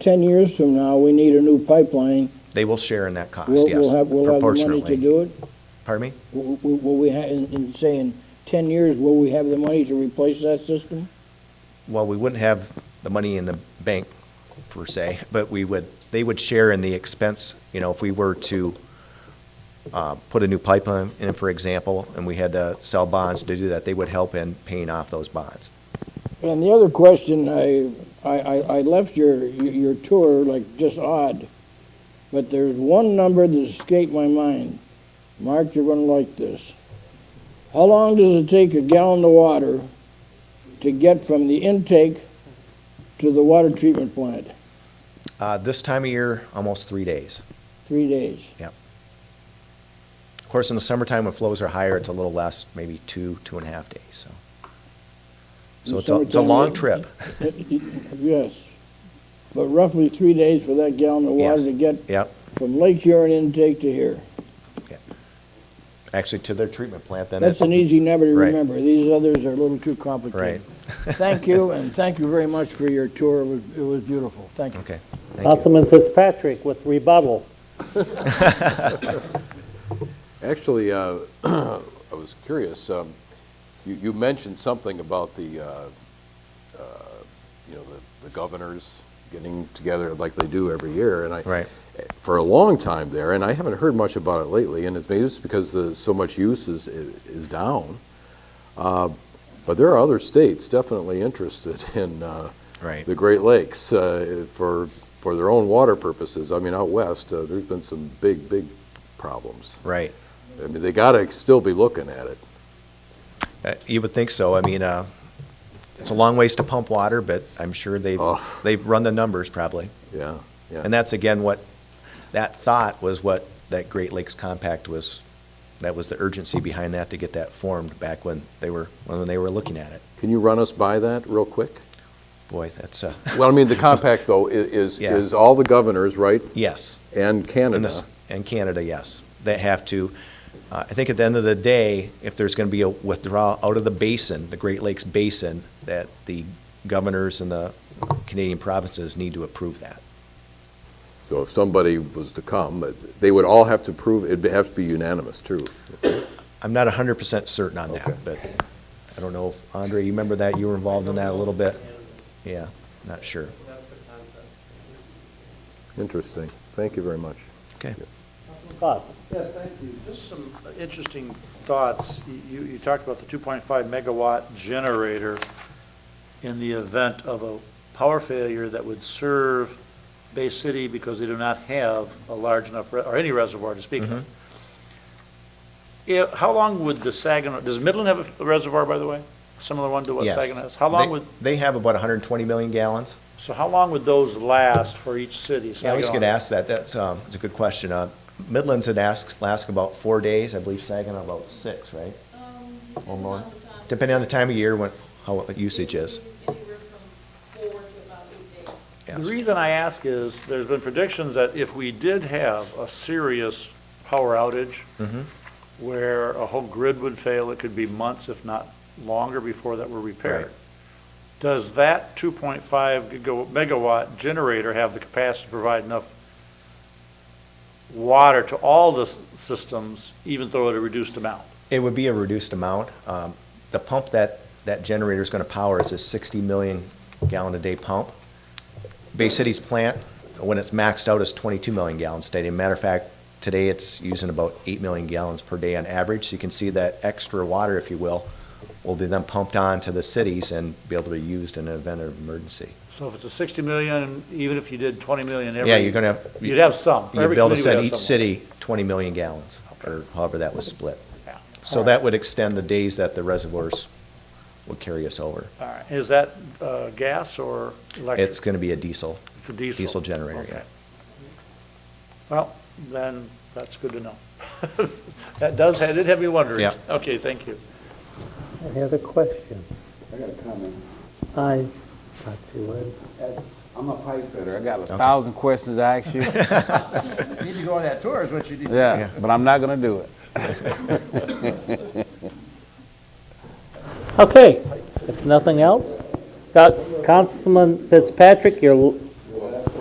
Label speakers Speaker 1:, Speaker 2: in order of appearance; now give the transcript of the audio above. Speaker 1: 10 years from now, we need a new pipeline.
Speaker 2: They will share in that cost,
Speaker 1: We'll
Speaker 2: yes.
Speaker 1: we'll have, we'll have the money to
Speaker 2: proportionately.
Speaker 1: do it?
Speaker 2: Pardon me?
Speaker 1: Will will- will we, ha- in in saying 10 years, will we have the money to replace that system?
Speaker 2: Well, we wouldn't have the money in the bank, per se, but we would, they would share in the expense, you know, if we were to uh, put a new pipeline in, for example, and we had to sell bonds to do that, they would help in paying off those bonds.
Speaker 1: And the other question, I, I, I I left your, your tour like just odd, but there's one number that escaped my mind. Mark, you're gonna like this. How long does it take a gallon of water to get from the intake to the water treatment plant?
Speaker 2: Uh, This time of year, almost three days.
Speaker 1: Three days.
Speaker 2: Of course, in the summertime, when flows are higher, it's a little less, maybe two, two and a half days, so.
Speaker 1: In
Speaker 2: So it's a, it's a
Speaker 1: summertime,
Speaker 2: long
Speaker 1: it-
Speaker 2: trip.
Speaker 1: Yes, but roughly three days for that gallon of water
Speaker 2: Yes.
Speaker 1: to get
Speaker 2: Yep,
Speaker 1: from Lake Huron intake to here.
Speaker 2: actually to their treatment plant, then.
Speaker 1: That's
Speaker 2: it-
Speaker 1: an easy number to
Speaker 2: Right.
Speaker 1: remember. These others are a little too complicated.
Speaker 2: Right.
Speaker 1: Thank you, and thank you very much for your tour. It was, it was beautiful. Thank you.
Speaker 2: Okay, thank you.
Speaker 3: Councilman Fitzpatrick with rebuttal.
Speaker 4: Actually, uh, I was curious, um, you you mentioned something about the, uh, uh, you know, the- the governors getting together like they do every year, and I...
Speaker 2: Right.
Speaker 4: For a long time there, and I haven't heard much about it lately, and it's maybe it's because the- so much use is is down, Uh, but there are other states definitely interested in uh,
Speaker 2: Right.
Speaker 4: the Great Lakes uh, for for their own water purposes. I mean, out west, uh, there's been some big, big problems.
Speaker 2: Right.
Speaker 4: I mean, they gotta still be looking at it.
Speaker 2: Uh, You would think so. I mean, uh, it's a long ways to pump water, but I'm sure they've,
Speaker 4: Oh.
Speaker 2: they've run the numbers probably.
Speaker 4: Yeah, yeah.
Speaker 2: And that's again what, that thought was what that Great Lakes Compact was, that was the urgency behind that to get that formed back when they were, when they were looking at it.
Speaker 4: Can you run us by that real quick?
Speaker 2: Boy, that's, uh,
Speaker 4: Well, I mean, the compact though i- is,
Speaker 2: Yeah.
Speaker 4: is all the governors, right,
Speaker 2: yes.
Speaker 4: and
Speaker 2: And
Speaker 4: Canada.
Speaker 2: this, and Canada, yes. They have to, uh, I think at the end of the day, if there's going to be a withdrawal out of the basin, the Great Lakes Basin, that the governors and the Canadian provinces need to approve that.
Speaker 4: So if somebody was to come, uh, they would all have to prove, it'd be- have to be unanimous too.
Speaker 2: I'm not hundred percent certain on
Speaker 4: Okay.
Speaker 2: that, but I don't know, if Andre, you remember that, you were involved in that a little bit? Yeah, not sure.
Speaker 4: Interesting. Thank you very much.
Speaker 2: Okay.
Speaker 3: Bob,
Speaker 5: Yes, thank you. Just some interesting thoughts. You, you talked about the 2.5 megawatt generator in the event of a power failure that would serve Bay City because they do not have a large enough, re- or any reservoir to speak
Speaker 2: Mm-hmm.
Speaker 5: of. If- How long would the Saginaw, does Midland have a reservoir, by the way? Similar one to what
Speaker 2: Yes.
Speaker 5: Saginaw has? How
Speaker 2: They-
Speaker 5: long would,
Speaker 2: They have about hundred and twenty million gallons.
Speaker 5: so how long would those last for each city?
Speaker 2: Yeah, I always get
Speaker 5: Saginaw-
Speaker 2: asked that, that's, um, it's a good question. Uh, Midlands had asked, last about four days, I believe Saginaw about six, right? Or more, depending on the time of year, when, how usage is.
Speaker 6: Anywhere from four to about eight days.
Speaker 2: Yes.
Speaker 5: The reason I ask is, there's been predictions that if we did have a serious power outage,
Speaker 2: Mm-hmm.
Speaker 5: where a whole grid would fail, it could be months, if not longer, before that were repaired.
Speaker 2: Right.
Speaker 5: Does that 2.5 giga- megawatt generator have the capacity to provide enough water to all the s- systems, even though at a reduced amount?
Speaker 2: It would be a reduced amount. Um, The pump that, that generator's gonna power is a 60 million gallon a day pump. Bay City's plant, when it's maxed out, is 22 million gallons steady. Matter of fact, today it's using about 8 million gallons per day on average. So You can see that extra water, if you will, will be then pumped on to the cities and be able to be used in an event of emergency.
Speaker 5: So if it's a 60 million, even if you did 20 million every...
Speaker 2: Yeah, you're gonna have.
Speaker 5: You'd have some.
Speaker 2: You'd
Speaker 5: Every
Speaker 2: be able to
Speaker 5: community would
Speaker 2: send
Speaker 5: have
Speaker 2: each
Speaker 5: someone.
Speaker 2: city 20 million gallons, or however that was split.
Speaker 5: Yeah.
Speaker 2: So that would extend the days that the reservoirs would carry us over.
Speaker 5: All right. Is that uh, gas or electric?
Speaker 2: It's going to be a diesel.
Speaker 5: It's a diesel.
Speaker 2: Diesel generator,
Speaker 5: Okay.
Speaker 2: yeah.
Speaker 5: Well, then, that's good to know. That does, that did have me wondering.
Speaker 2: Yeah.
Speaker 5: Okay, thank you.
Speaker 3: any other questions?
Speaker 7: I got a comment.
Speaker 3: I, not too late.
Speaker 7: I'm a pipe fitter. I got a thousand questions to ask you.
Speaker 1: Need to go on that tour is what you did.
Speaker 7: Yeah, but I'm not gonna do it.
Speaker 3: Okay, if nothing else, got Councilman Fitzpatrick, your